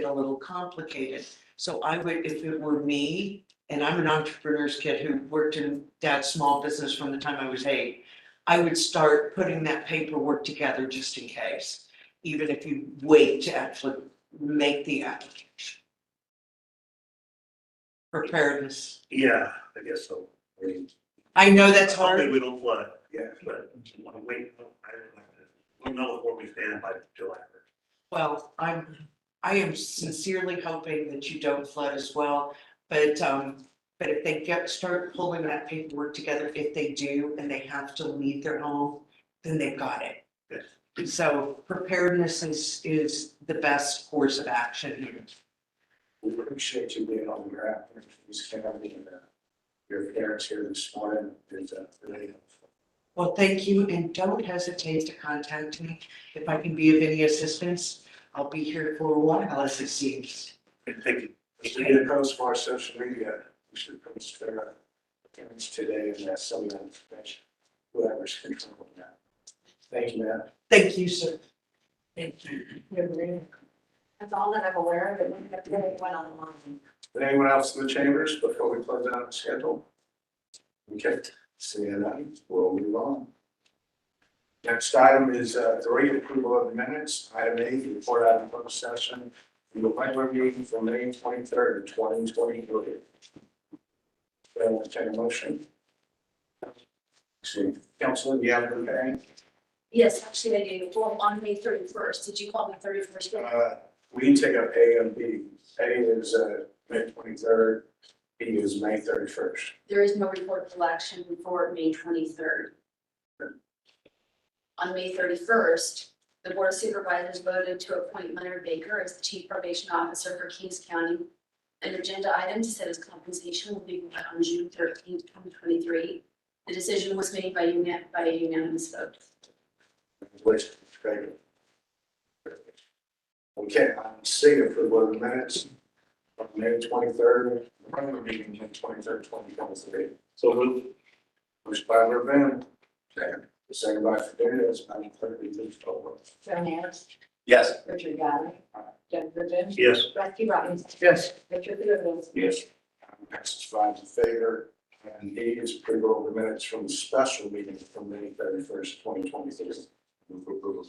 get a little complicated. So I would, if it were me, and I'm an entrepreneur's kid who worked in dad's small business from the time I was eight, I would start putting that paperwork together just in case, even if you wait to actually make the application. Preparedness. Yeah, I guess so. I mean, I know that's hopefully hard. We don't flood, it, yeah, but we wanna wait, I don't like to- we'll know where we stand by July. first. Well, I'm, I am sincerely hoping that you don't flood as well. But, um, but if they get, start pulling that paperwork together, if they do and they have to leave their home, then they've got it. Yes. And So preparedness is, is the best course of action here. We appreciate you being on your app, please come out and, uh, your parents here this morning, and, uh, really helpful. Well, thank you and don't hesitate to contact me. If I can be of any assistance, I'll be here for a while as it seems. And Thank you. If you get those for our social media, we should post their parents today and that some of that information, whoever's controlling that. Thank you, Matt. Thank you, sir. Thank you. That's all that I'm aware of, it wouldn't have been one on one. Anyone else in the chambers before we close out the schedule? Okay, seeing none, we'll move on. Next item is, uh, three, approval of minutes, item eight, report out of closed session, the regular meeting for May twenty-third, twenty twenty-three. Anyone take a motion? See, Councilman, you have anything? Yes, actually I do, well, on May thirty first, did you call me thirty first? Uh, we can take up A and B. A is, uh, May twenty-third, B is May thirty-first. There is no report collection for May twenty third. On May thirty first, the board of supervisors voted to appoint Leonard Baker as the chief probation officer for Kings County. An agenda item to set his compensation will be met on June thirteenth, twenty twenty three. The decision was made by unan- by a unanimous vote. Which, great. Okay, I'm seeing approval of the minutes of May twenty-third, regular meeting, May twenty-third, twenty twenty-three. So move. Motion by Levin, second, the second by Fidelis, I'm clear to move forward. Joan Ayers, Yes. Richard Galloway, Doug Griffin, Yes. Rusty Robinson, Yes. Richard Lewis, Yes. Passes five in favor, and E is approval of the minutes from the special meeting from May thirty-first, twenty twenty-three. Move approval.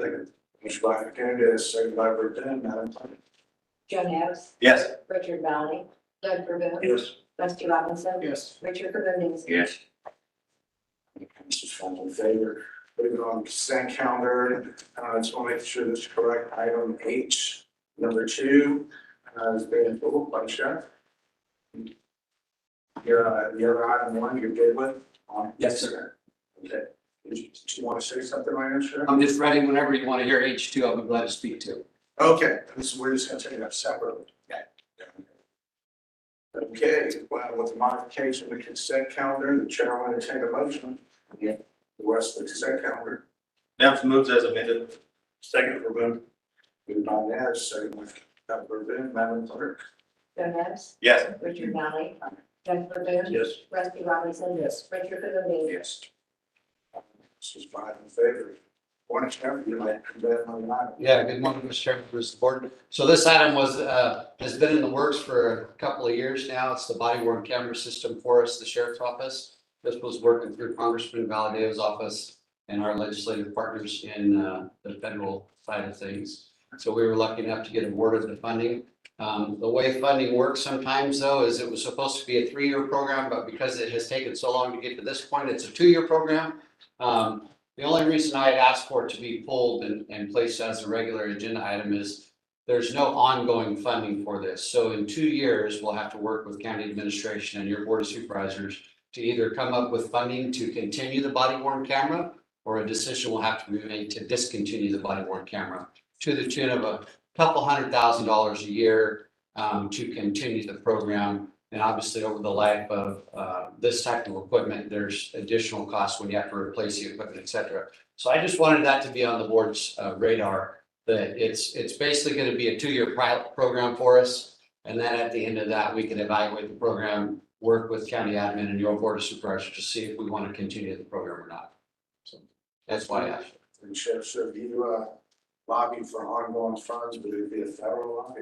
Second. Motion by Fidelis, second by Levin, Madam Clerk. Joan Ayers, Yes. Richard Galloway, Doug Griffin, Yes. Rusty Robinson, Yes. Richard Lewis, Yes. Mrs. Fennel in favor. Moving on, consent calendar, uh, just want to make sure this is correct. Item H, number two, uh, is being pulled by the sheriff. Your, uh, the other item one you're good with? Um, Yes, sir. Okay. Did you, did you want to say something right now, Sheriff? I'm just ready whenever you want to hear H two, I'll be glad to speak to. Okay, this, we're just gonna take it up separately. Yeah. Okay, well, with the modification of the consent calendar, the chair will entertain a motion. Yeah. The rest of the consent calendar. Now moves as amended. Second for boom. Moved by Naz, second by Councilmember Boone, Madam Clerk. Joan Ayers, Yes. Richard Galloway, Doug Griffin, Yes. Rusty Robinson, Richard Lewis, Yes. This is five in favor. One chairman, you might come back on the line. Yeah, good morning, Mr. Chairman, members of the board. So this item was, uh, has been in the works for a couple of years now. It's the body worn camera system for us, the sheriff's office. This was working through Congressman Valdez's office and our legislative partners in, uh, the federal side of things. So we were lucky enough to get awarded the funding. Um, the way funding works sometimes though, is it was supposed to be a three-year program, but because it has taken so long to get to this point, it's a two-year program. Um, the only reason I had asked for it to be pulled and, and placed as a regular agenda item is there's no ongoing funding for this. So in two years, we'll have to work with county administration and your board of supervisors to either come up with funding to continue the body worn camera or a decision will have to be made to discontinue the body worn camera to the tune of a couple hundred thousand dollars a year um, to continue the program. And obviously, over the life of uh, this type of equipment, there's additional costs when you have to replace the equipment, et cetera. So I just wanted that to be on the board's uh, radar, that it's, it's basically going to be a two-year pilot program for us. And then at the end of that, we can evaluate the program, work with county admin and your board of supervisors to see if we want to continue the program or not. So That's why I asked. And Sheriff, sir, you uh, lobby for ongoing funds, but it'd be a federal lobby.